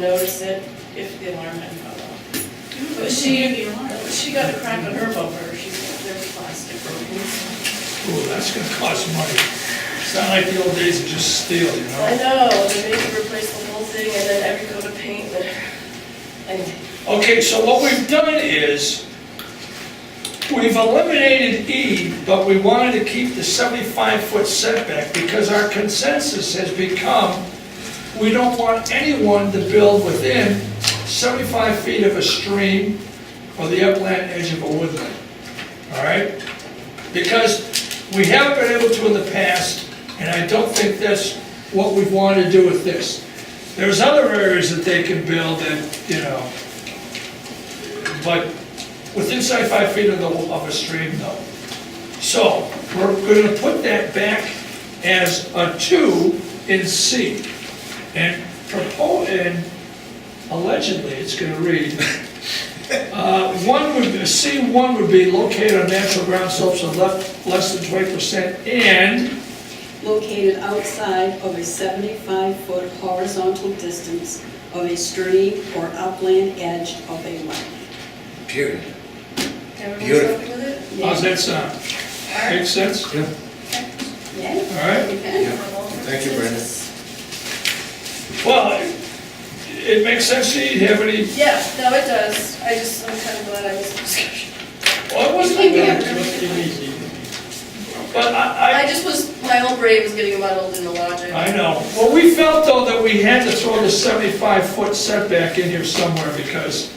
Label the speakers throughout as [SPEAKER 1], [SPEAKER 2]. [SPEAKER 1] notice it if the alarm had gone off. But she, she got a crack on her bumper, she, there's plastic broken.
[SPEAKER 2] Ooh, that's gonna cost money. It's not like the old days of just steel, you
[SPEAKER 1] I
[SPEAKER 2] know?
[SPEAKER 1] know, they made you replace the whole thing and then every coat of paint, but, and
[SPEAKER 2] Okay, so what we've done is, we've eliminated E, but we wanted to keep the seventy-five foot setback because our consensus has become, we don't want anyone to build within seventy-five feet of a stream or the upland edge of a woodland, all right? Because we haven't been able to in the past, and I don't think that's what we want to do with this. There's other areas that they can build that, you know, but within 75 feet of the, of a stream, no. So, we're gonna put that back as a two in C. And propose, and allegedly, it's gonna read, uh, One would, be- C1 would be located on natural ground slopes of left, less than 20% and,
[SPEAKER 3] located outside of a 75-foot horizontal distance of a stream or upland edge of a wetland.
[SPEAKER 4] Period.
[SPEAKER 1] everyone's
[SPEAKER 4] Beautiful.
[SPEAKER 1] happy with it?
[SPEAKER 2] how's that sound? Makes sense? All
[SPEAKER 3] Yeah?
[SPEAKER 2] right?
[SPEAKER 3] Okay.
[SPEAKER 4] Thank you, Brenda.
[SPEAKER 2] Well, it- it makes sense to you, you have any,
[SPEAKER 1] Yeah, no, it does, I just, I'm kind of glad I was in discussion.
[SPEAKER 2] well, it wasn't
[SPEAKER 1] Yeah.
[SPEAKER 2] But I,
[SPEAKER 1] I just was, my own brain was getting muddled in the logic.
[SPEAKER 2] I, I know. Well, we felt though that we had to throw the seventy-five foot setback in here somewhere because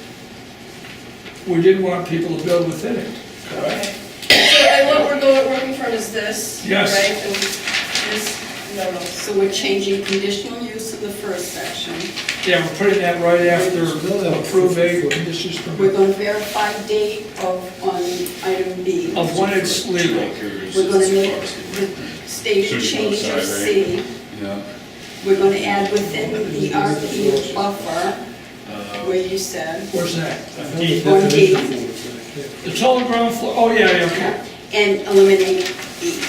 [SPEAKER 2] we didn't want people to build within it, correct?
[SPEAKER 1] Okay. So, and what we're going, working from is this, right?
[SPEAKER 2] Yes.
[SPEAKER 1] And this, no, no.
[SPEAKER 3] So we're changing conditional use of the first section.
[SPEAKER 2] Yeah, we're putting that right after approve a conditions
[SPEAKER 3] We're
[SPEAKER 2] permit
[SPEAKER 3] going to verify date of, on item B.
[SPEAKER 2] of when it's legal.
[SPEAKER 3] We're going to make the state change of C.
[SPEAKER 5] Yeah,
[SPEAKER 3] We're going to add within the RP buffer, where you said,
[SPEAKER 2] Where's that?
[SPEAKER 3] on D.
[SPEAKER 2] The total ground floor, oh, yeah, yeah, okay.
[SPEAKER 3] and eliminate E.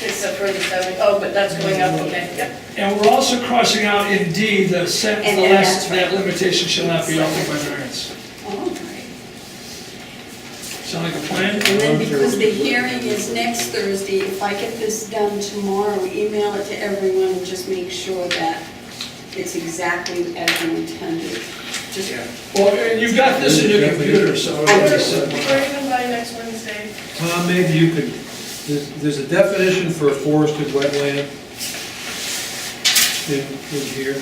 [SPEAKER 1] Except for the seven, oh, but that's going up, okay, yep.
[SPEAKER 2] And we're also crossing out in D, the sentence, the
[SPEAKER 3] And then
[SPEAKER 2] last,
[SPEAKER 3] that's right.
[SPEAKER 2] that limitation shall not be altered by variance.
[SPEAKER 3] All right.
[SPEAKER 2] Sound like a plan?
[SPEAKER 3] And then because the hearing is next Thursday, if I get this done tomorrow, email it to everyone and just make sure that it's exactly as you intended. Just,
[SPEAKER 2] Well, and you've got this in your computer, so. uh,
[SPEAKER 1] We're
[SPEAKER 2] it'll be simple.
[SPEAKER 1] we're even by next Wednesday.
[SPEAKER 6] Tom, maybe you could, there's, there's a definition for forested wetland in, in here.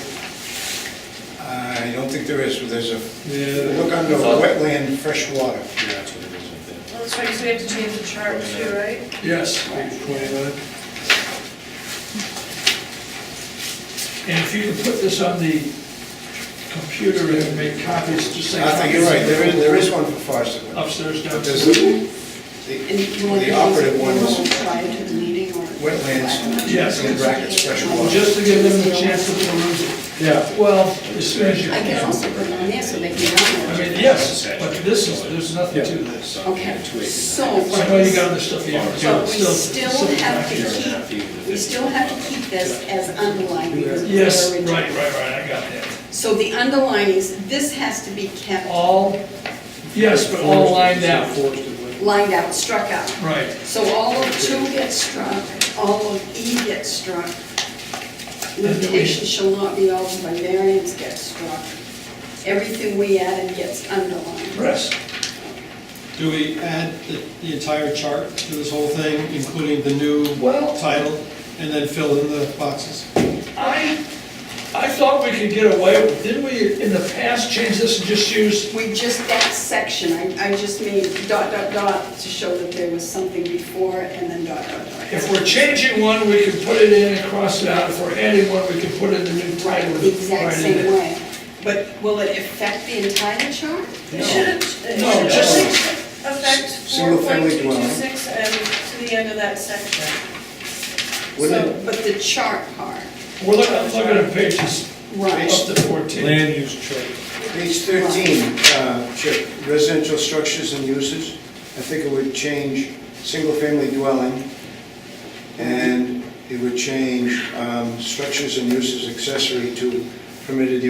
[SPEAKER 4] I don't think there is, but there's a,
[SPEAKER 6] Yeah,
[SPEAKER 4] look under wetland, freshwater. Yeah, that's what it is
[SPEAKER 1] Well, That's right, because we have to change the chart too, right?
[SPEAKER 2] Yes,
[SPEAKER 6] page twenty-nine.
[SPEAKER 2] and if you could put this on the computer and make copies, just say.
[SPEAKER 4] I think you're right, there is, there is one for forest.
[SPEAKER 2] Upstairs,
[SPEAKER 4] But
[SPEAKER 2] downstairs.
[SPEAKER 4] there's, the,
[SPEAKER 3] and you want to
[SPEAKER 4] the operative one is
[SPEAKER 3] prior to the meeting or?
[SPEAKER 4] wetlands.
[SPEAKER 2] Yes.
[SPEAKER 4] In brackets, freshwater.
[SPEAKER 2] Just to give them a chance to peruse it.
[SPEAKER 6] Yeah,
[SPEAKER 2] Well, as soon as you
[SPEAKER 3] I can
[SPEAKER 2] can.
[SPEAKER 3] also put it on there so they can download
[SPEAKER 2] I
[SPEAKER 3] it.
[SPEAKER 2] mean, yes, but this is, there's nothing to this.
[SPEAKER 3] Okay, so
[SPEAKER 2] I know you got the stuff you have to do.
[SPEAKER 3] but we
[SPEAKER 2] It's
[SPEAKER 3] still
[SPEAKER 2] it's
[SPEAKER 3] have to
[SPEAKER 2] back here.
[SPEAKER 3] keep, we still have to keep this as underlined. because of the
[SPEAKER 2] Yes, right,
[SPEAKER 3] original.
[SPEAKER 2] right, right, I got that.
[SPEAKER 3] So the underlinings, this has to be kept
[SPEAKER 2] All, yes, but all lined out,
[SPEAKER 6] Forested wetland.
[SPEAKER 3] lined out, struck out.
[SPEAKER 2] right.
[SPEAKER 3] So all of two gets struck, all of E gets struck. Limitation shall not be altered by variance gets struck. Everything we added gets underlined.
[SPEAKER 2] Rest.
[SPEAKER 7] Do we add the- the entire chart to this whole thing, including the new
[SPEAKER 2] Well-
[SPEAKER 7] title, and then fill in the boxes?
[SPEAKER 2] I, I thought we could get away, with didn't we in the past change this and just use,
[SPEAKER 3] We just, that section, I, I just made dot, dot, dot to show that there was something before and then dot, dot,
[SPEAKER 2] if
[SPEAKER 3] dot.
[SPEAKER 2] we're changing one, we can put it in and cross it out, if we're adding one, we can put in the new title.
[SPEAKER 3] The exact
[SPEAKER 2] right in
[SPEAKER 3] same
[SPEAKER 2] it.
[SPEAKER 3] way. But will it affect the entire chart?
[SPEAKER 1] It should, it should
[SPEAKER 2] No,
[SPEAKER 1] only
[SPEAKER 2] just-
[SPEAKER 1] affect four
[SPEAKER 4] Single
[SPEAKER 1] point
[SPEAKER 4] family
[SPEAKER 1] two two
[SPEAKER 4] dwelling.
[SPEAKER 1] six and to the end of that section.
[SPEAKER 4] Wouldn't
[SPEAKER 3] So, But the chart part,
[SPEAKER 2] We're looking, I'm looking at pages
[SPEAKER 3] right.
[SPEAKER 2] up to fourteen.
[SPEAKER 6] land use chart.
[SPEAKER 4] Page 13, uh, Chip, residential structures and uses. I think it would change single-family dwelling, and it would change um, structures and uses accessory to permitted